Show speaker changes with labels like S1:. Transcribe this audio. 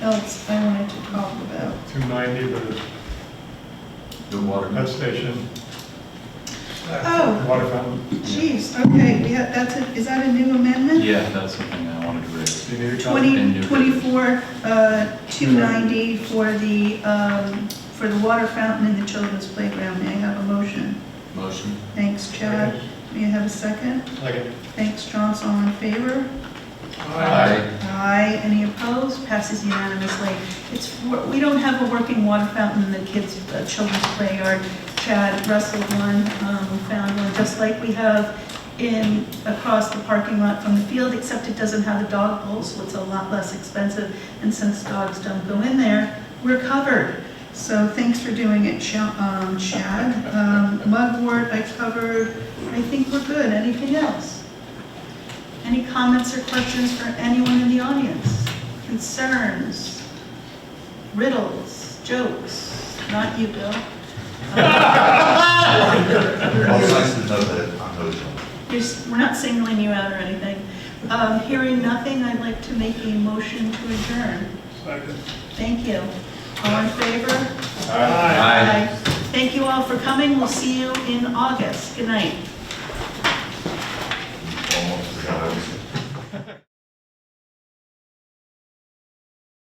S1: else I wanted to talk about.
S2: 290, the
S3: New water.
S2: pet station,
S1: Oh,
S2: water fountain.
S1: jeez, okay, we have, that's a, is that a new amendment?
S3: Yeah, that's something I wanted to raise.
S2: Do you need a copy?
S1: Twenty, twenty-four, uh, two ninety for the, um, for the water fountain in the children's playground. May I have a motion?
S3: Motion?
S1: Thanks, Chad. May I have a second?
S2: Second.
S1: Thanks, Johnson, all in favor?
S2: Aye.
S1: Aye, any opposed? Passes unanimously. It's, for- we don't have a working water fountain in the kids' uh, children's play yard. Chad wrestled one, um, found one, just like we have in, across the parking lot from the field, except it doesn't have the dog bowl, so it's a lot less expensive. And since dogs don't go in there, we're covered. So thanks for doing it, Cha- um, Chad. Um, Mugwort, I covered, I think we're good. Anything else? Any comments or questions for anyone in the audience? Concerns, riddles, jokes? Not you, Bill.
S4: Well, it's nice to know that I'm eligible.
S1: You're s- We're not singling you out or anything. Um, Hearing nothing, I'd like to make a motion to adjourn.
S2: Second.
S1: Thank you. All in favor?
S2: Aye.
S1: Aye. Thank you all for coming. We'll see you in August. Good night.
S4: Almost forgot I was.